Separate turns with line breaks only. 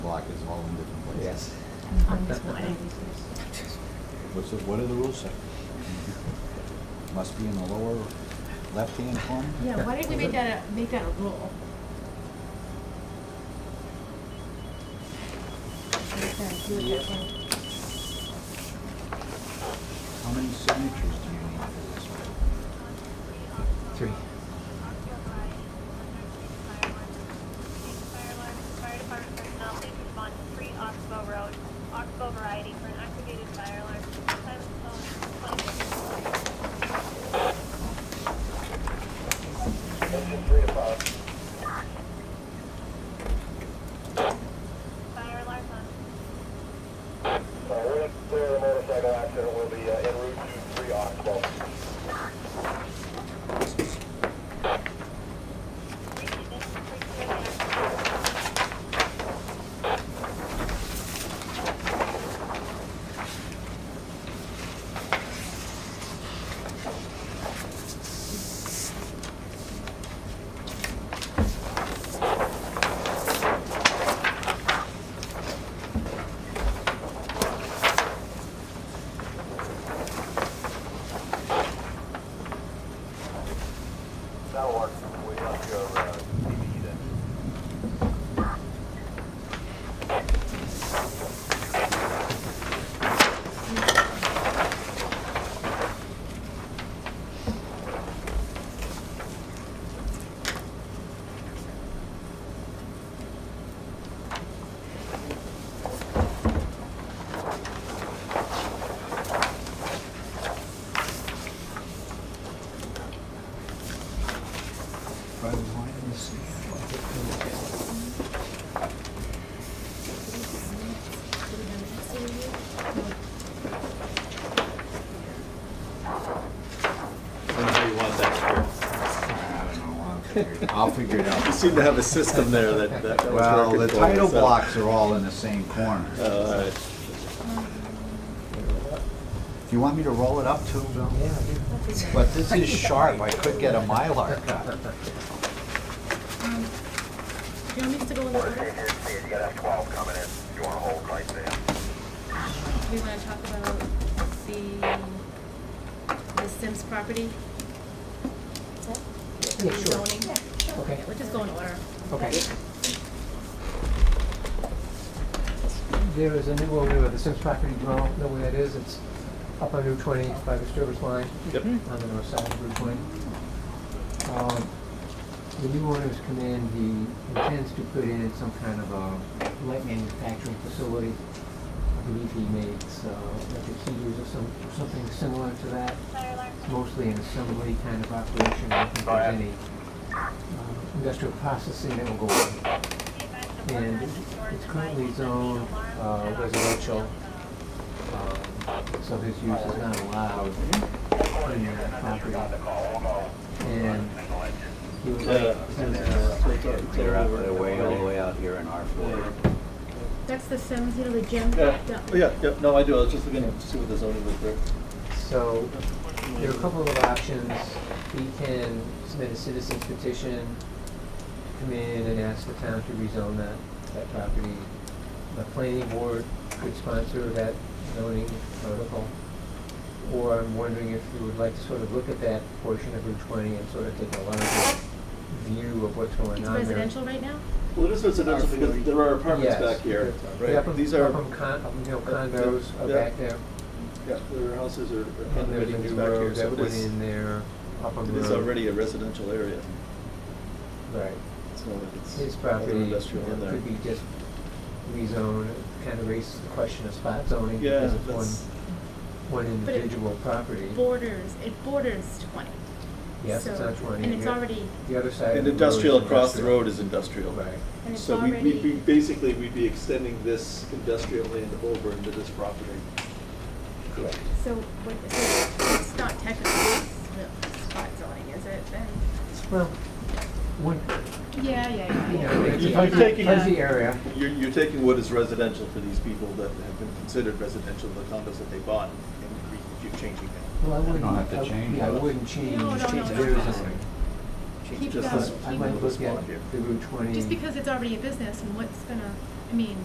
block is all in different places.
Yes.
On this one.
What's the, what do the rules say? Must be in the lower left-hand corner?
Yeah, why don't we make that, a make that a rule? Okay, do it that way.
How many signatures do you need for this one?
Three.
Fire Department personnel, please respond to three Oxbow Road, Oxbow variety for an activated fire alarm. Time is phone 20.
Uh,
Fire alarm on.
So we're going to clear the motorcycle accident, we'll be uh, en route to three Oxbow.
Repeat this, please clear the accident.
That'll work, we left your uh, CBE then.
By the line of the sea.
how you want
I
that.
don't know, I'll figure it- I'll figure it
You
out.
seem to have a system there that, that was
Well,
working
the
for you,
title
so-
blocks are all in the same corner.
Uh, all right.
Do you want me to roll it up too, Bill? Yeah. But this is sharp, I could get a Mylar cut.
Um, Do you want me to go in the order?
you gotta have twelve coming in, if you wanna hold right there.
We want to talk about the, the Sims property? The
Yeah, sure.
zoning?
Okay.
Yeah, We'll just go in order.
Okay. There is a new overview of the Sims property, you all know where that is, it's up on Route 20 by the Sturbridge line.
Yep.
On the north side of Route 20. Um, The new owners come in, he intends to put in some kind of a light manufacturing facility. I believe he makes uh, electric heaters or some, or something similar to that.
Fire alarm.
It's mostly an assembly kind of operation, I don't think there's any um, industrial processing that will go on.
Be advised that one
And
resident or
it's
advised
currently
that the
zoned
alarm
uh,
at Oxbow
residential,
Road.
um, so his use is not allowed in that property. And he would
Yeah.
like, since
It's all- it's all
They're up
over.
their way, all the way out here in R four.
Yeah.
That's the Sims, you know, the gym?
Yeah, Oh, yeah, yeah, no, I do, I was just looking to see what the zoning was there.
So there are a couple of options. We can submit a citizen's petition, come in and ask the town to rezone that, that property. The planning board could sponsor that zoning article. Or I'm wondering if you would like to sort of look at that portion of Route 20 and sort of take a larger view of what's going on
It's
there.
residential right now?
Well, it is residential because there are apartments
Yes.
back here,
Yeah,
right?
up in-
These
up
are,
in con, up in, you know, condos are
Yeah.
back there.
yeah, there are houses or or
And there's a
condominiums
new
back here,
road
so
that
it
went
is,
in there, up on
it
the
is
road.
already a residential area.
Right.
So it's
His
other
property
industrial in there.
could be just rezoned, kind of raises the question of spot zoning
Yeah,
because it's
that's,
one, one
But it
individual property.
Borders, it borders twenty.
Yes, it's
So-
on twenty.
And it's
The-
already,
The other side of
and
the road is
industrial across the
industrial.
road is industrial.
Right.
and it's
So we,
already.
we, we basically, we'd be extending this industrial land over into this property. Correct.
So, what, so it's not technically the spot zoning, is it then?
Well, one,
Yeah, yeah, yeah.
you
yeah.
know, it's a
You're
fuzzy-
taking-
fuzzy area.
You're, you're taking what is residential for these people that have been considered residential, the condos that they bought, and re- you're changing that.
Well, I wouldn't,
don't have to
I-
change
yeah, I
it.
wouldn't change
No, no, no,
their
no.
zoning.
Keep
Just
going,
this-
I
keep
might
little
look
spot
at
here.
the Route twenty.
Just because it's already a business and what's gonna, I mean,